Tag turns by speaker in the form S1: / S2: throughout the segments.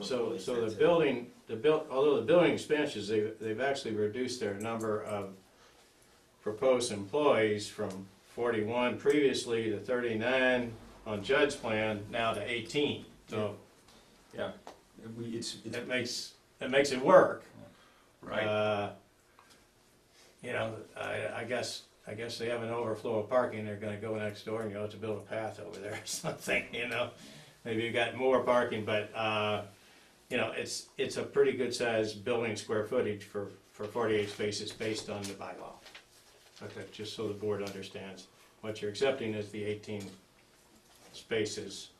S1: So, so the building, the built, although the building expansions, they, they've actually reduced their number of proposed employees from forty-one previously to thirty-nine on Judd's plan, now to eighteen. So
S2: Yeah, we, it's, it's,
S1: it makes, it makes it work.
S2: right,
S1: Uh, You know, I, I guess, I guess they have an overflow of parking, they're gonna go next door and you'll have to build a path over there or something, you know? Maybe you got more parking, but, uh, you know, it's, it's a pretty good sized building square footage for, for forty-eight spaces based on the bylaw. Okay, just so the board understands, what you're accepting is the eighteen spaces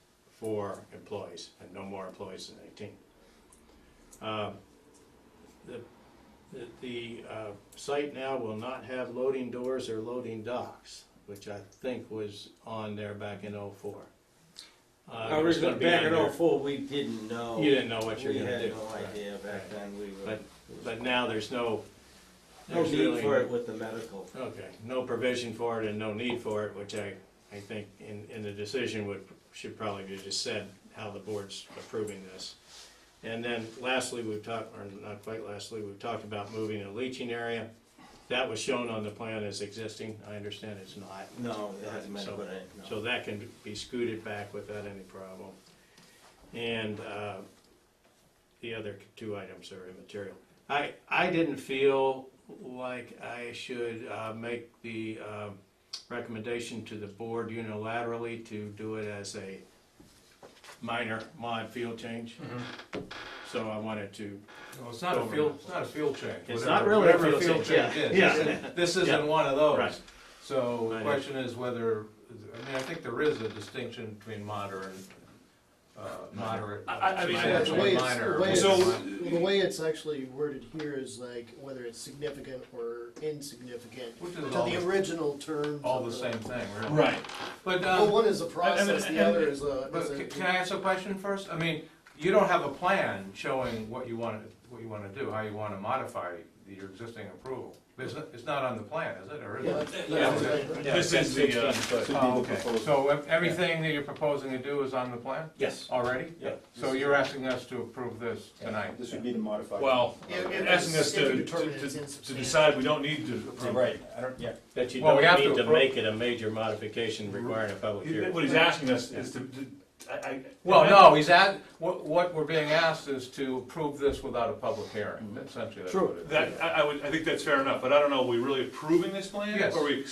S1: for employees, and no more employees than eighteen. Um, The that the uh, site now will not have loading doors or loading docks, which I think was on there back in '04. Uh, it was gonna
S3: Originally,
S1: be
S3: back
S1: on
S3: in
S1: there.
S3: oh-four, we didn't know.
S1: You didn't know what you were
S3: We
S1: gonna
S3: had
S1: do.
S3: no idea back then, we were.
S1: But- But now there's no,
S3: No
S1: there's
S3: need
S1: really,
S3: for it with the medical.
S1: okay, no provision for it and no need for it, which I, I think in, in the decision would, should probably be just said how the board's approving this. And then lastly, we've talked, or not quite lastly, we've talked about moving a leaching area. That was shown on the plan as existing, I understand it's not.
S3: No, it hasn't
S1: So-
S3: medical, in it, no.
S1: So that can be scooted back without any problem. And uh, the other two items are immaterial. I, I didn't feel like I should uh, make the um, recommendation to the board unilaterally to do it as a minor mod field change.
S4: Mm-hmm.
S1: So I wanted to,
S4: No, it's not a field, it's not a field change.
S1: It's
S4: Whatever-
S1: not really a
S4: whatever
S1: field
S4: change is.
S1: Yeah.
S4: This isn't- This
S1: Yeah.
S4: isn't one of those.
S1: Right.
S4: So
S1: I
S4: the
S1: know.
S4: question is whether, I mean, I think there is a distinction between moderate, uh, moderate.
S1: I- I- I mean,
S4: minor
S5: Yeah, the way
S4: and
S5: it's,
S4: minor.
S5: the way it's,
S4: So-
S5: the way it's actually worded here is like whether it's significant or insignificant
S4: Which
S5: to
S4: is all,
S5: the
S4: the-
S5: original terms.
S4: all
S5: of
S4: the same thing, really.
S1: right,
S4: But,
S5: Well,
S4: um,
S5: one is a process,
S4: and-
S5: the other is a.
S4: but
S5: is a-
S4: ca- can I ask a question first? I mean, you don't have a plan showing what you want, what you want to do, how you want to modify your existing approval. It's not, it's not on the plan, is it, or is
S5: Yeah,
S4: it?
S5: that's- that's
S4: Yeah.
S5: right.
S1: Yeah,
S2: This is
S1: 10,
S2: the, uh,
S1: 16 foot.
S4: Oh, okay. So ev- everything that you're proposing to do is on the plan
S1: yes.
S4: already?
S1: Yeah.
S4: So you're asking us to approve this tonight?
S6: This would be the modified.
S2: well,
S5: If- if
S2: asking
S5: it's-
S2: us
S5: if you
S2: to,
S5: determine
S2: to,
S5: it's
S2: to
S5: insubstantial.
S2: decide we don't need to approve.
S6: Right, I don't, yeah.
S1: That you
S4: Well,
S1: don't
S4: we have to
S1: need to
S4: appro-
S1: make it a major modification requiring a public hearing.
S2: What he's asking us is to, to- I, I.
S4: Well, no, he's at, what, what we're being asked is to approve this without a public hearing, essentially that's what it is.
S2: That, I, I would, I think that's fair enough, but I don't know, are we really approving this plan?
S4: Yes.
S2: Or we,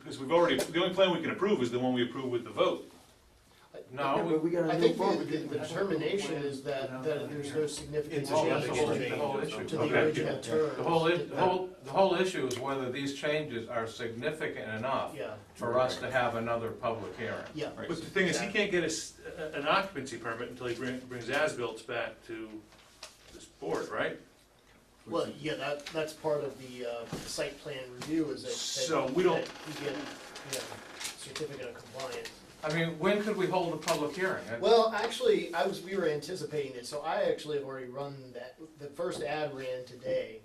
S2: because we've already, the only plan we can approve is the one we approve with the vote.
S4: No, we-
S7: we gotta
S5: I
S7: move
S5: think
S7: forward.
S5: the- the determination is that, that there's no significant
S4: It's all- that's the whole- the whole
S5: change
S4: issue.
S5: to the
S2: Okay.
S5: original terms.
S4: the whole, i- the whole, the whole issue is whether these changes are significant enough
S5: Yeah,
S4: for us to have another public hearing.
S5: yeah.
S2: But the thing is, he can't get a s- a- an occupancy permit until he brings, brings as-built back to this board, right?
S5: Well, yeah, that, that's part of the, uh, site plan review is that. that-
S2: So we don't-
S5: that You get, you know, certificate of compliance.
S4: I mean, when could we hold a public hearing? That-
S5: Well, actually, I was, we were anticipating it, so I actually have already run that, the first ad ran today,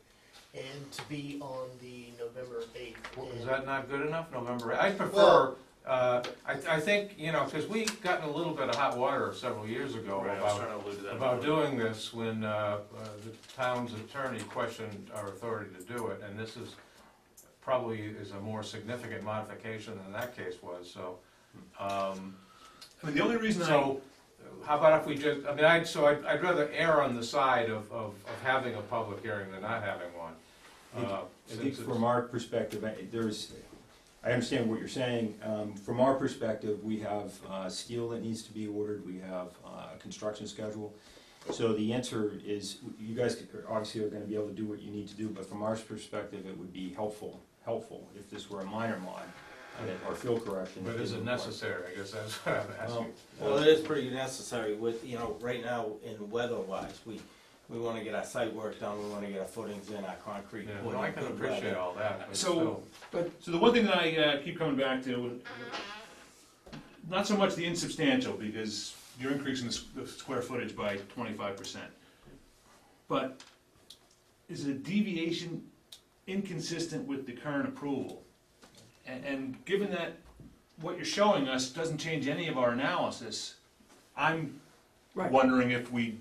S5: and to be on the November eighth.
S4: Well, Is that not good enough, November? I prefer,
S5: Well-
S4: uh, I, I think, you know, because we got in a little bit of hot water several years ago
S2: Right, I was
S4: about,
S2: trying to allude to that.
S4: about doing this when, uh, uh, the town's attorney questioned our authority to do it, and this is probably is a more significant modification than that case was, so, um,
S2: I mean, the only reason I,
S4: so, how about if we just, I mean, I'd, so I'd, I'd rather err on the side of, of, of having a public hearing than not having one. uh,
S6: I think
S4: since it's-
S6: from our perspective, I- there's, I understand what you're saying. Um, From our perspective, we have uh, steel that needs to be ordered, we have uh, a construction schedule. So the answer is, you guys could- obviously are gonna be able to do what you need to do, but from our perspective, it would be helpful, helpful if this were a minor mod uh, or field correction.
S4: But is it necessary, I guess that's what I'm asking.
S3: Well, it is pretty necessary with, you know, right now in weather wise, we, we wanna get our site work done, we wanna get our footings in, our concrete.
S4: Yeah,
S3: poured
S4: well, I
S3: in
S4: can
S3: good
S4: appreciate
S3: weather.
S4: all that, but
S2: So-
S4: still.
S2: so the one thing that I uh, keep coming back to, not so much the insubstantial, because you're increasing the s- the square footage by twenty-five percent. But is a deviation inconsistent with the current approval? And, and given that what you're showing us doesn't change any of our analysis, I'm
S7: Right.
S2: wondering if we